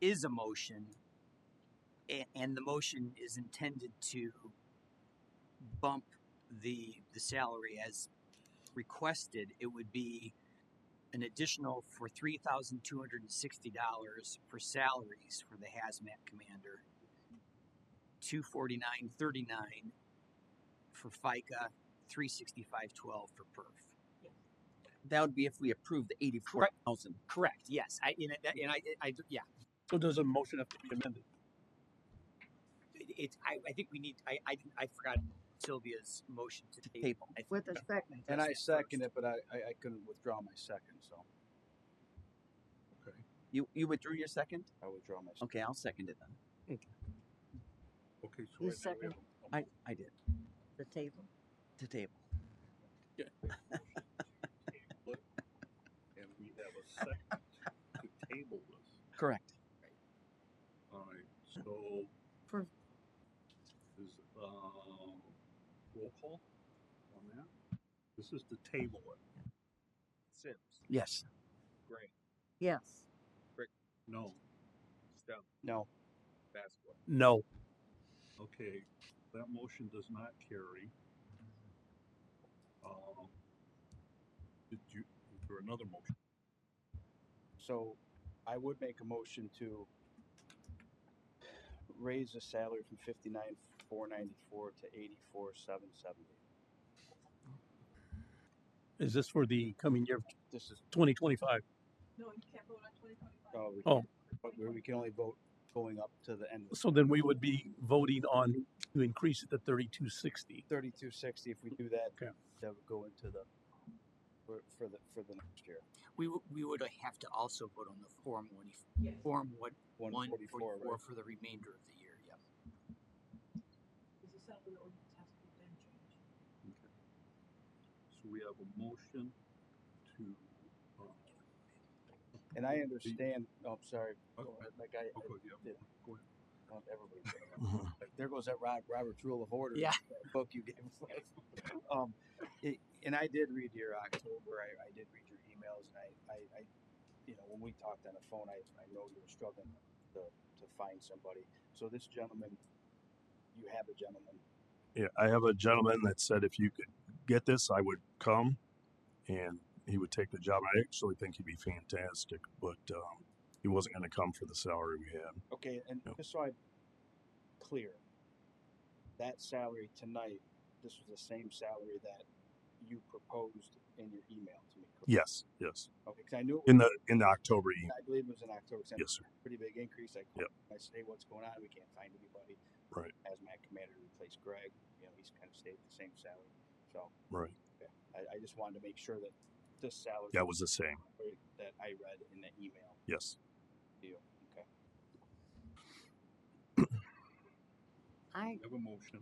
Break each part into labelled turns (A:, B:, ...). A: is a motion a- and the motion is intended to bump the, the salary as requested, it would be an additional for three thousand two hundred and sixty dollars for salaries for the hazmat commander. Two forty-nine thirty-nine for FICA, three sixty-five twelve for perf.
B: That would be if we approved the eighty-four thousand.
A: Correct, yes, I, and I, and I, I, yeah,
C: So does a motion have to be amended?
A: it, it's- I, I think we need, I, I, didn't- I forgot Sylvia's motion to table.
B: Table.
A: I think-
D: with a second.
C: And I
A: Yes,
C: second
A: first.
C: it, but I, I, I couldn't withdraw my second, so. Okay,
B: You, you withdrew your second?
C: I withdraw my.
E: Um,
C: second.
B: Okay, I'll second it then.
C: Okay.
D: Who right now we have
B: I, I did,
D: The table.
B: to table.
E: And we have a second to table this.
B: Correct.
E: Alright, so.
D: For-
E: Is, um, roll call on that? This is to table it.
A: Sims,
B: Yes.
A: Gray,
D: Yes.
E: No,
A: Stone,
C: No,
A: Basco.
C: no.
E: okay, that motion does not carry. Um, did you, for another motion,
C: So I would make a motion to raise the salary from fifty-nine, four ninety-four to eighty-four, seven seventy.
F: Is this for the coming year,
C: This is,
F: twenty twenty-five?
G: No, you can't vote on twenty twenty-five.
C: oh, we-
F: Oh.
C: but we we can only vote going up to the end of
F: So then we would be voting on to increase it to thirty-two sixty.
C: thirty-two sixty. If we do that,
F: Okay.
C: that would go into the, for, for the, for the next year.
A: We, w- we would have to also vote on the Form 1,
G: Yes.
A: Form what,
C: One
A: 144
C: forty-four, right?
A: for the remainder of the year, yeah.
G: This is something that ordinance has to be then changed.
E: so we have a motion to, uh,
C: And I understand, oh, I'm sorry,
E: Okay.
C: like I, I
E: okay, yeah,
C: Yeah.
E: go ahead.
C: want everybody. to know.
H: Mm-hmm.
C: Like, there goes that Rob, Robert's Rule of Order.
A: Yeah.
C: that Book you gave. us. um, it, and I did read your October. I, I did read your emails, and I, I, I, you know, when we talked on the phone, I, I know you were struggling to, to find somebody. So this gentleman, you have a gentleman.
H: Yeah, I have a gentleman that said if you could get this, I would come, and he would take the job. I actually think he'd be fantastic, but um, he wasn't going to come for the salary we had.
C: Okay, and
H: Yep.
C: just so I'm clear, that salary tonight, this was the same salary that you proposed in your email to me. correct?
H: Yes, yes,
C: Okay, 'cause I knew it was
H: in the in the October email.
C: I believe it was in October. 'cause I know
H: Yes, sir.
C: it's a Pretty big increase. I,
H: Yep.
C: I say, what's going on? We can't find anybody.
H: Right.
C: As my commander replaced Greg, you know, he's kind of stayed the same salary. So
H: Right,
C: I, I just wanted to make sure that this salary
H: that was the same.
C: that I read in the email
H: Yes,
C: deal. Okay.
D: I,
E: We have a motion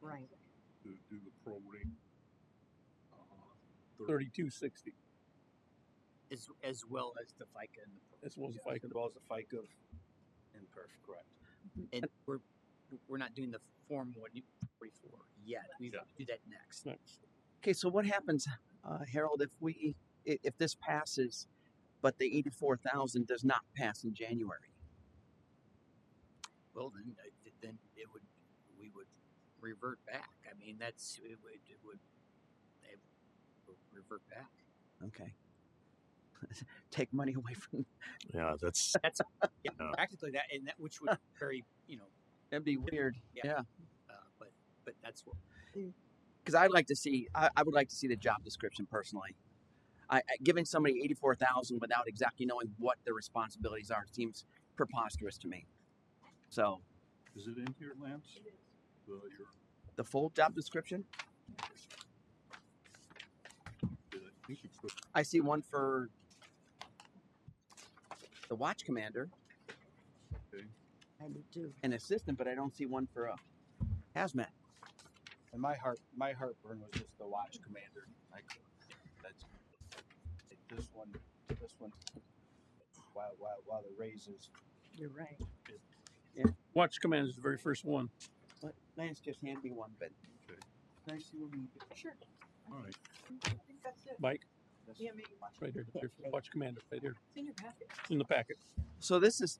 D: right.
E: to do the prorate. uh,
F: Thirty-two sixty,
A: As, as well as the FICA and the,
F: as well as if I
C: As
F: can.
C: well as the FICA and perf, correct.
A: and we're, we're not doing the Form 144 yet. We
E: Yeah.
A: do that next.
F: Next.
B: Okay, so what happens, uh, Harold, if we, i- if this passes, but the eighty-four thousand does not pass in January?
A: Well, then, I- th- then it would, we would revert back. I mean, that's, it would, it would, it would revert back.
B: Okay. Take money away from,
H: yeah, that's
A: Yeah,
H: Yeah.
A: practically that, and that, which would very, you know,
B: that'd be weird.
A: uh, but, but that's what,
B: because I'd like to see. I, I would like to see the job description personally. I, I, giving somebody eighty four thousand without exactly knowing what their responsibilities are seems preposterous to me. So
E: Is it in here, Lance? The, your,
B: the full job description,
E: I think you put
B: I see one for the watch commander
D: I do too.
B: and assistant, but I don't see one for a hazmat.
C: And my heart, my heartburn was just the watch commander. I couldn't. That's this one. This one. While while while the raises
D: You're right.
F: Watch command is the very first one.
B: What Lance just hand me one, but
E: Okay.
B: Can I see one? more?
G: Sure.
E: all right.
G: I think that's it.
F: Mike,
C: this-
G: Yeah, maybe watch.
F: right here, the very first watch commander, right here,
G: It's in your packet.
F: in the packet.
B: So this is